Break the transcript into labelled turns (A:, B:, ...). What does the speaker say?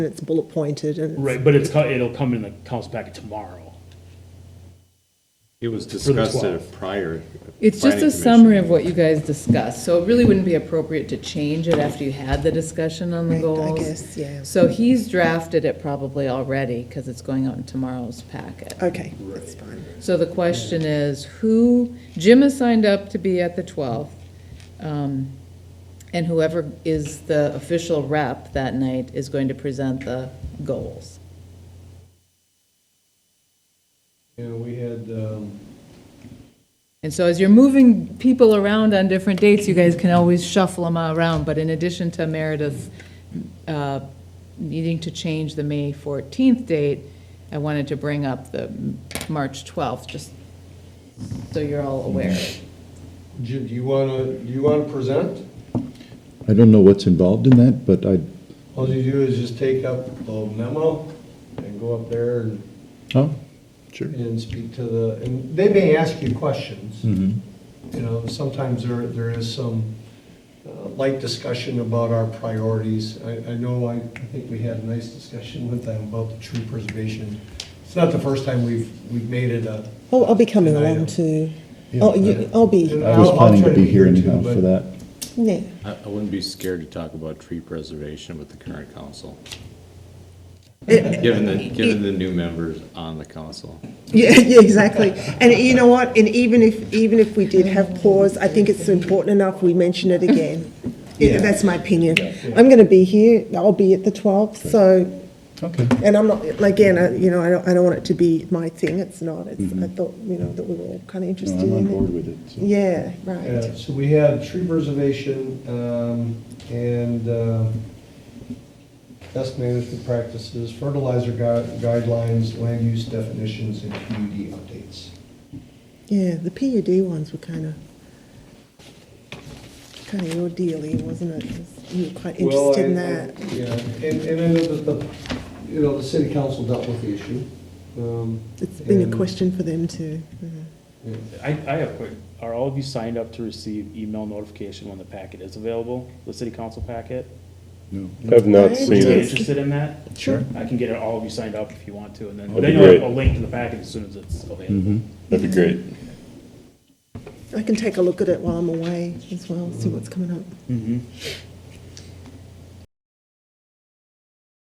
A: it's bullet pointed and. it's-
B: Right, but it's, co- it'll come in the council packet tomorrow.
C: It was
B: the
C: discussed at a
B: 12.
C: prior.
D: It's
C: planning
D: just a
C: commission
D: summary of
C: meeting.
D: what you guys discussed, so it really wouldn't be appropriate to change it after you had the discussion on the
A: Right, I
D: goals.
A: guess, yeah.
D: So he's drafted it probably already, because it's going out in tomorrow's packet.
A: Okay, that's fine.
D: So the question is, who, Jim has signed up to be at the 12th, um, and whoever is the official rep that night is going to present the goals.
E: Yeah, we had, um,
D: And so as you're moving people around on different dates, you guys can always shuffle them around, but in addition to Meredith uh, needing to change the May 14th date, I wanted to bring up the March 12th, just so you're all aware.
E: Jim, do you wanna, do you wanna present?
F: I don't know what's involved in that, but I,
E: All you do is just take up a memo and go up there and,
F: oh, sure.
E: and speak to the, and they may ask you questions.
F: Mhm.
E: You know, sometimes there, there is some uh, light discussion about our priorities. I, I know, I I think we had a nice discussion with them about the tree preservation. It's not the first time we've, we've made it a.
A: I'll, I'll be coming
E: an
F: uh,
A: along
E: item.
A: too. Oh, you, I'll be,
F: I
E: I'll-
F: was
E: I'll
F: planning
E: try
F: to be here anyhow
E: too, but-
F: for that.
A: yeah,
C: I, I wouldn't be scared to talk about tree preservation with the current council. Given the, given the new members on the council.
A: yeah, yeah, exactly. And you know what, and even if, even if we did have pause, I think it's important enough we mention it again. Yeah, That's my opinion. I'm gonna be here, I'll be at the twelfth, so,
F: Okay.
A: and I'm not, again, I, you know, I don't, I don't want it to be my thing, it's not. It's, I thought, you know, that we were all kind of
F: Mm-hmm.
A: interested
F: No, I'm on
A: in
F: board
A: it.
F: with it. so.
A: Yeah,
E: Yeah,
A: right.
E: Uh, so we had tree preservation, um, and, uh, best management practices, fertilizer gui- guidelines, land use definitions, and PUD updates.
A: Yeah, the PUD ones were kind of, kind of your dealy, wasn't it? You were quite interested in that.
E: Yeah, and, and I know that the, you know, the city council dealt with the issue. um,
A: It's been
E: and-
A: a question for them too. yeah.
E: yeah.
B: I, I have a quick, are all of you signed up to receive email notification when the packet is available, the city council packet?
F: No.
G: I've not
A: Right.
B: Would you
G: seen
B: be
G: it.
B: interested in that?
A: Sure.
B: I can get all of you signed up if you want to, and then,
F: That'd
B: then
F: be Mm-hmm.
B: you'll have a
G: great.
B: link to the packet as soon as it's available.
G: That'd be great.
A: I can take a look at it while I'm away as well, see what's coming up.
B: Mm-hmm.